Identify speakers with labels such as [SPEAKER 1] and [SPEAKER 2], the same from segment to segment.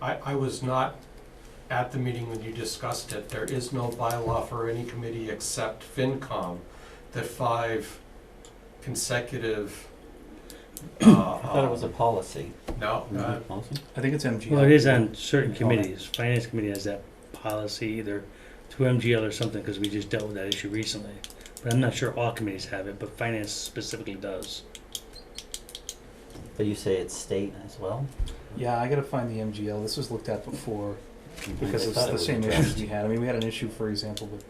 [SPEAKER 1] I, I was not at the meeting when you discussed it. There is no bylaw for any committee except FinCom that five consecutive. I
[SPEAKER 2] I thought it
[SPEAKER 3] Um,
[SPEAKER 2] was a Mm-hmm. policy.
[SPEAKER 1] No,
[SPEAKER 2] Isn't
[SPEAKER 1] uh,
[SPEAKER 2] it a policy?
[SPEAKER 3] I think it's MGL.
[SPEAKER 4] Well, it is on certain
[SPEAKER 3] Call that.
[SPEAKER 4] committees. Finance committee has that policy either through MGL or something, because we just dealt with that issue recently. But I'm not sure all committees have it, but finance specifically does.
[SPEAKER 2] But you say it's state as well?
[SPEAKER 3] Yeah, I gotta find the MGL. This was looked at before
[SPEAKER 2] I
[SPEAKER 3] Mhm. because it's
[SPEAKER 2] thought it
[SPEAKER 3] the
[SPEAKER 2] was
[SPEAKER 3] same
[SPEAKER 2] addressed.
[SPEAKER 3] issues we had. I mean, we had an issue, for example, with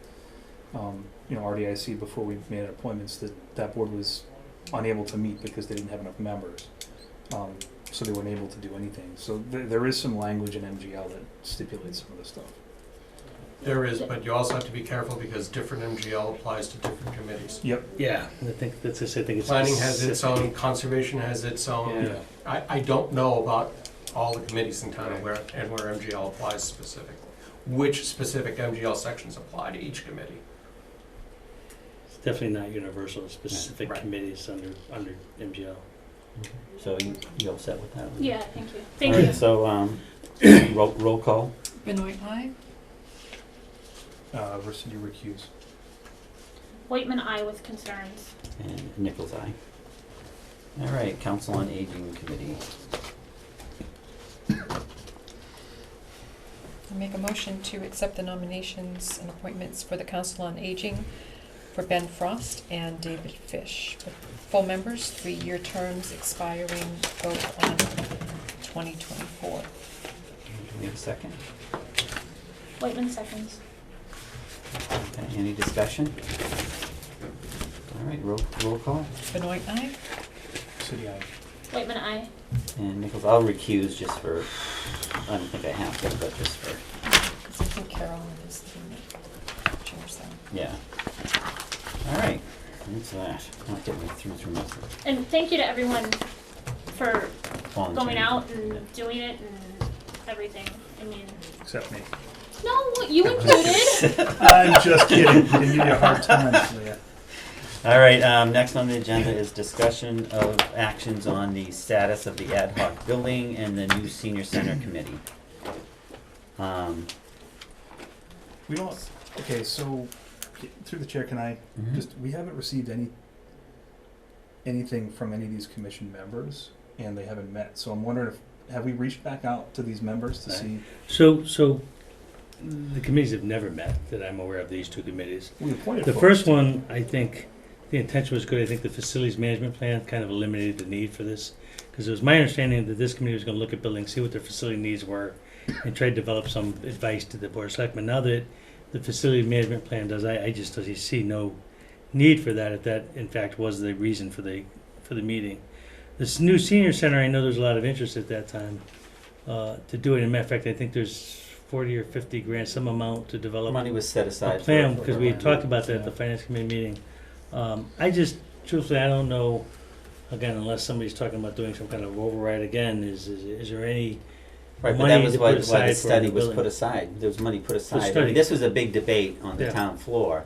[SPEAKER 3] um, you know RDIC before we made appointments that that board was unable to meet because they didn't have enough members, um, so they weren't able to do anything. So th- there is some language in MGL that stipulates some of this stuff.
[SPEAKER 1] there is, but you also have to be careful because different MGL applies to different committees.
[SPEAKER 4] Yeah, I think that's just, I think it's.
[SPEAKER 1] Planning has its
[SPEAKER 4] specific.
[SPEAKER 1] own, conservation has its own.
[SPEAKER 4] Yeah.
[SPEAKER 1] I, I don't know about all the committees in town and where, and where MGL applies specifically. Which specific MGL sections apply to each committee.
[SPEAKER 4] It's definitely not universal, specific
[SPEAKER 1] Right.
[SPEAKER 4] committees under, under MGL.
[SPEAKER 2] So you, you all set with that?
[SPEAKER 5] Yeah, thank you.
[SPEAKER 2] All
[SPEAKER 5] Thank
[SPEAKER 2] right,
[SPEAKER 5] you.
[SPEAKER 2] So, um, roll, roll call?
[SPEAKER 6] Benoit, aye.
[SPEAKER 3] Uh, versus you recuse.
[SPEAKER 5] Whiteman, I with concerns.
[SPEAKER 2] And Nichols, aye. All right, Council on Aging Committee.
[SPEAKER 6] I make a motion to accept the nominations and appointments for the Council on Aging for Ben Frost and David Fish. Full members, three-year terms expiring both on 2024.
[SPEAKER 2] Do we have a second?
[SPEAKER 5] Whiteman seconds.
[SPEAKER 2] Okay, any discussion? All right, roll, roll call.
[SPEAKER 6] Benoit, aye.
[SPEAKER 3] City I.
[SPEAKER 5] Whiteman, I.
[SPEAKER 2] And Nichols, I'll recuse just for, I don't think I have to, but just for,
[SPEAKER 6] Because I think Carolyn is the one that chairs that.
[SPEAKER 2] yeah. All right, that's that. Not getting me through through most of
[SPEAKER 5] And thank you to everyone for
[SPEAKER 2] the volunteering.
[SPEAKER 5] going out and doing it and everything. I mean,
[SPEAKER 3] Except me.
[SPEAKER 5] no, you included.
[SPEAKER 3] I'm just kidding. I give you a hard time. Leah.
[SPEAKER 2] All right, um, next on the agenda is discussion of actions on the status of the ad hoc building and the new senior center committee. Um,
[SPEAKER 3] We don't. Okay, so through the chair, can I
[SPEAKER 4] Mm-hmm.
[SPEAKER 2] mhm.
[SPEAKER 3] Just, we haven't received any, anything from any of these commission members, and they haven't met, so I'm wondering if, have we reached back out to these members to
[SPEAKER 2] Right.
[SPEAKER 3] see?
[SPEAKER 4] So, so the committees have never met that I'm aware of, these two committees.
[SPEAKER 3] We appointed
[SPEAKER 4] The
[SPEAKER 3] folks.
[SPEAKER 4] first one, I think, the intention was good. I think the facilities management plan kind of eliminated the need for this. Because it was my understanding that this committee was gonna look at buildings, see what their facility needs were, and try to develop some advice to the board of selectmen. Now that the facility management plan does, I, I just doesn't see no need for that, if that in fact was the reason for the, for the meeting. This new senior center, I know there's a lot of interest at that time, uh, to do it. In fact, I think there's forty or fifty grand, some amount to develop
[SPEAKER 2] Money was set
[SPEAKER 4] a
[SPEAKER 2] aside. for-
[SPEAKER 4] plan, because we had
[SPEAKER 2] for-
[SPEAKER 4] talked about that at the finance committee meeting. Um, I just, truthfully, I don't know, again, unless somebody's talking about doing some kind of override again, is, is, is there any?
[SPEAKER 2] Right, but
[SPEAKER 4] money
[SPEAKER 2] that was
[SPEAKER 4] to
[SPEAKER 2] why,
[SPEAKER 4] put
[SPEAKER 2] why the
[SPEAKER 4] aside for
[SPEAKER 2] study
[SPEAKER 4] the
[SPEAKER 2] was
[SPEAKER 4] building.
[SPEAKER 2] put aside, there was money put aside. I
[SPEAKER 4] study.
[SPEAKER 2] mean, This was a big debate on the
[SPEAKER 4] Yeah.
[SPEAKER 2] town floor.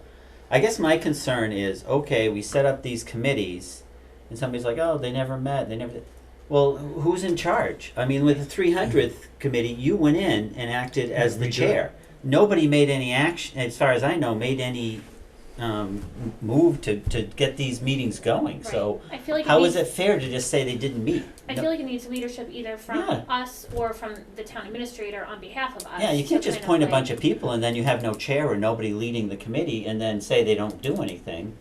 [SPEAKER 2] I guess my concern is, okay, we set up these committees, and somebody's like, oh, they never met, they never, did." well, who's in charge? I mean, with the three hundredth committee, you went in and acted as the
[SPEAKER 4] We did.
[SPEAKER 2] chair. Nobody made any action, as far as I know, made any, um, m- move to, to get these meetings going, so
[SPEAKER 5] Right. I feel like
[SPEAKER 2] how
[SPEAKER 5] needs,
[SPEAKER 2] is it fair to just say they didn't meet?
[SPEAKER 5] I feel like it needs leadership either from
[SPEAKER 2] Yeah.
[SPEAKER 5] us or from the town administrator on behalf of us.
[SPEAKER 2] Yeah, you can't
[SPEAKER 5] to
[SPEAKER 2] just
[SPEAKER 5] kind
[SPEAKER 2] point a
[SPEAKER 5] like-
[SPEAKER 2] bunch of people and then you have no chair or nobody leading the committee and then say they don't do anything.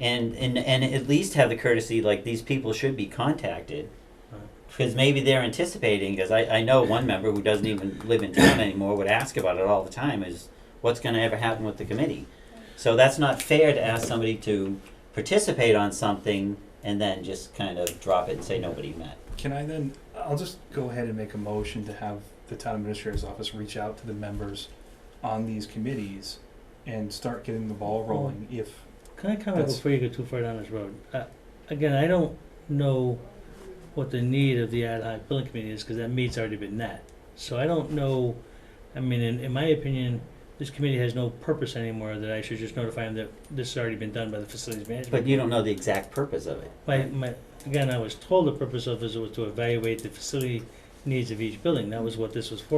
[SPEAKER 2] And, and, and at least have the courtesy, like, these people should be contacted.
[SPEAKER 4] Right.
[SPEAKER 2] Because maybe they're anticipating, because I, I know one member who doesn't even live in town anymore would ask about it all the time, is what's gonna ever happen with the committee? So that's not fair to ask somebody to participate on something and then just kind of drop it and say nobody met.
[SPEAKER 3] Can I then, I'll just go ahead and make a motion to have the town administrator's office reach out to the members on these committees and start getting the ball rolling if,
[SPEAKER 4] Can I comment
[SPEAKER 3] That's-
[SPEAKER 4] before you go too far down this road? Uh, again, I don't know what the need of the ad hoc building committee is, because that meet's already been met. So I don't know, I mean, in, in my opinion, this committee has no purpose anymore, that I should just notify them that this has already been done by the facilities management.
[SPEAKER 2] But you don't know the exact purpose of it.
[SPEAKER 4] My, my, again, I was told the purpose of this was to evaluate the facility needs of each building, that was what this was for.